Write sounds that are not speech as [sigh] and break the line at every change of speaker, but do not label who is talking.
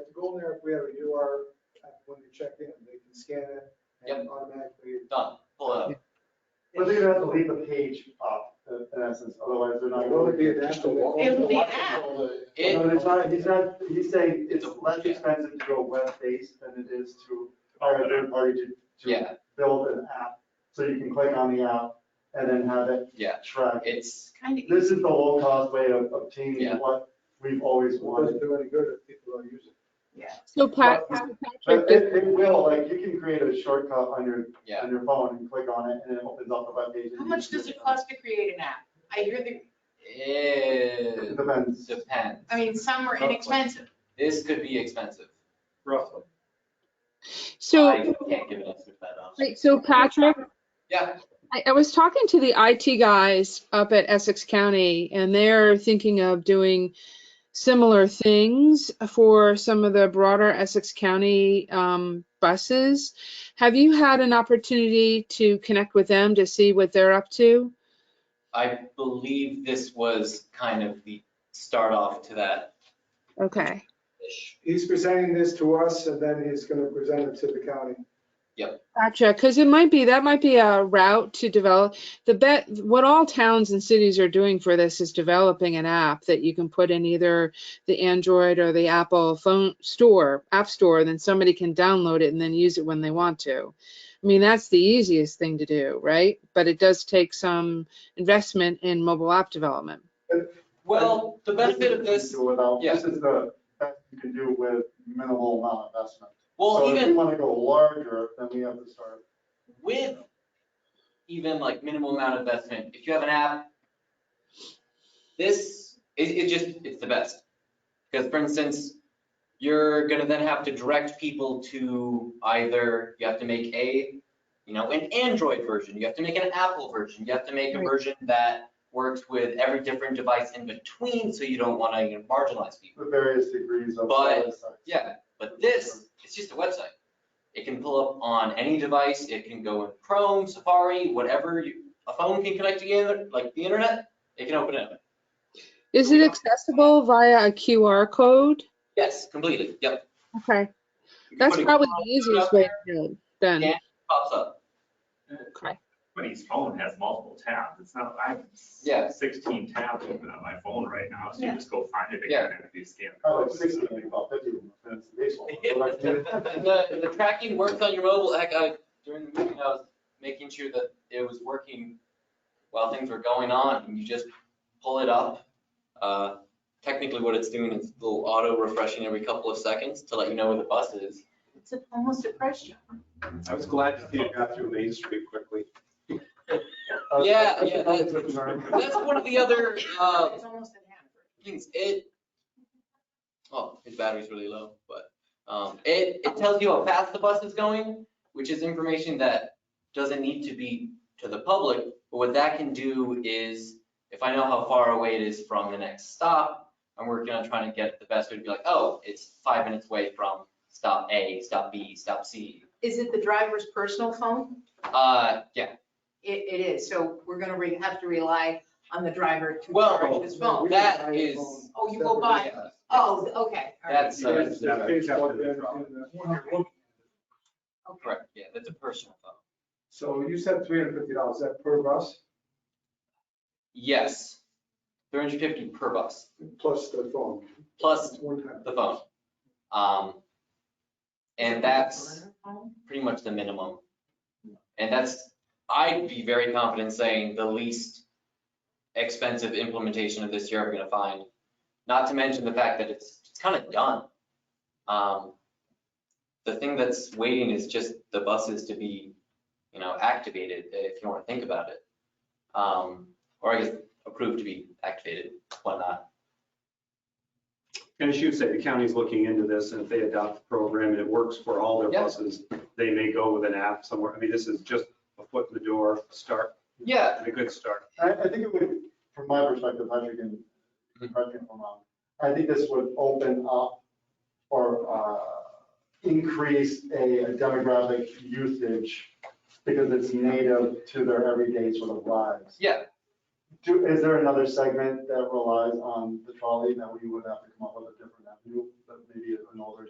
like we ever do our, uh, when we check in, they can scan it and automatically.
done, uh, pull it up.
But they're gonna have to leave a page up, in- in essence, otherwise they're not.
It would be an app.
It would be an app.
It-
No, it's not, he's not, he's saying it's less expensive to go web-based than it is to hire a third party to, to
Yeah,
build an app. So you can click on the app and then have it
yeah,
track.
it's,
Kind of,
This is the low-cost way of obtaining
Yeah.
what we've always
It doesn't
wanted.
do any good if people don't use it.
yeah.
So Pat,
But-
Patrick,
But
did-
it, it will, like, you can create a shortcut on your,
yeah.
on your phone and click on it and it opens up a webpage. and
How
you
much
can
does
do
it cost to create an app? I hear the,
It
It depends.
depends.
I mean, some are
Roughly.
inexpensive.
This could be expensive.
Roughly.
so,
I can't give an estimate that off.
wait, so Patrick,
Yeah,
I, I was talking to the IT guys up at Essex County, and they're thinking of doing similar things for some of the broader Essex County um, buses. Have you had an opportunity to connect with them to see what they're up to?
I believe this was kind of the start off to that
Okay.
ish.
He's presenting this to us and then he's gonna present it to the county.
Gotcha, because it might be, that might be a route to develop, the bet, what all towns and cities are doing for this is developing an app that you can put in either the Android or the Apple phone store, app store, then somebody can download it and then use it when they want to. I mean, that's the easiest thing to do, right? But it does take some investment in mobile app development.
Well, the benefit of
you
this,
can do Without,
yeah.
this is the best you can do with minimal amount of investment.
well,
So if we
even
want to go larger, then we have to start.
with even like minimal amount of investment, if you have an app, this, it, it just, it's the best. Because for instance, you're gonna then have to direct people to either, you have to make a, you know, an Android version, you have to make an Apple version, you have to make a
Right.
version that works with every different device in between, so you don't wanna you know, marginalize people.
The various degrees of.
But-
size.
Yeah, but this, it's just a website. It can pull up on any device, it can go in Chrome, Safari, whatever, you- a phone can connect to the, inter- like the internet, it can open it up.
Is it accessible via a QR code?
Yes, completely, yep.
Okay,
You can
that's
put a
probably
QR
the
code
easiest
up
way to
there,
do it, then.
Yeah. Pops up,
Okay.
Somebody's phone has multiple tabs. It's not, I
Yeah.
have sixteen tabs open on my phone right now, so you
Yeah.
just go find it
Yeah.
again and you scan.
I
Oh,
like sixty, I think about fifty. and it's
[laughs]
baseball. So like,
The, the tracking works on your mobile, heck, I, during the meeting, I was making sure that it was working while things were going on, and you just pull it up. Uh, Technically, what it's doing is a little auto refreshing every couple of seconds to let you know where the bus is.
It's almost a pressure.
I was glad to see it got through Main Street quickly.
uh,
Yeah,
I
yeah,
think it's a term.
That's one of the other uh,
It's almost an app.
things. It, oh, his battery's really low, but um, it, it tells you how fast the bus is going, which is information that doesn't need to be to the public. But what that can do is, if I know how far away it is from the next stop, I'm working on trying to get the best way to be like, oh, it's five minutes away from stop A, stop B, stop C.
Is it the driver's personal phone?
Uh, yeah,
It, it is, so we're gonna re- have to rely on the driver to
Well,
charge his
We
phone.
can
that
buy a
is-
phone
Oh, you will
separate.
buy-
yeah.
Oh, okay, all right,
That's, uh,
There's a page out there in the-
okay.
correct, yeah, that's a personal phone.
So you said three hundred fifty dollars, is that per bus
Yes, 350 per bus,
plus the phone?
plus
It's one time.
the phone. Um, And that's pretty much the minimum. And that's, I'd be very confident saying the least expensive implementation of this you're ever gonna find. Not to mention the fact that it's, it's kind of done. Um, The thing that's waiting is just the buses to be, you know, activated, eh, if you want to think about it. Um, Or I guess approved to be activated, whatnot.
And as you say, the county's looking into this and if they adopt the program and it works for all their
Yeah.
buses, they may go with an app somewhere. I mean, this is just a foot in the door, start,
Yeah,
a good start.
I, I think it would, from my perspective, Patrick and, Patrick, if I'm wrong, I think this would open up or, uh, increase a a demographic usage because it's native to their everyday sort of lives.
Yeah,
Do, is there another segment that relies on the trolley that we would have to come up with a different avenue, that maybe an older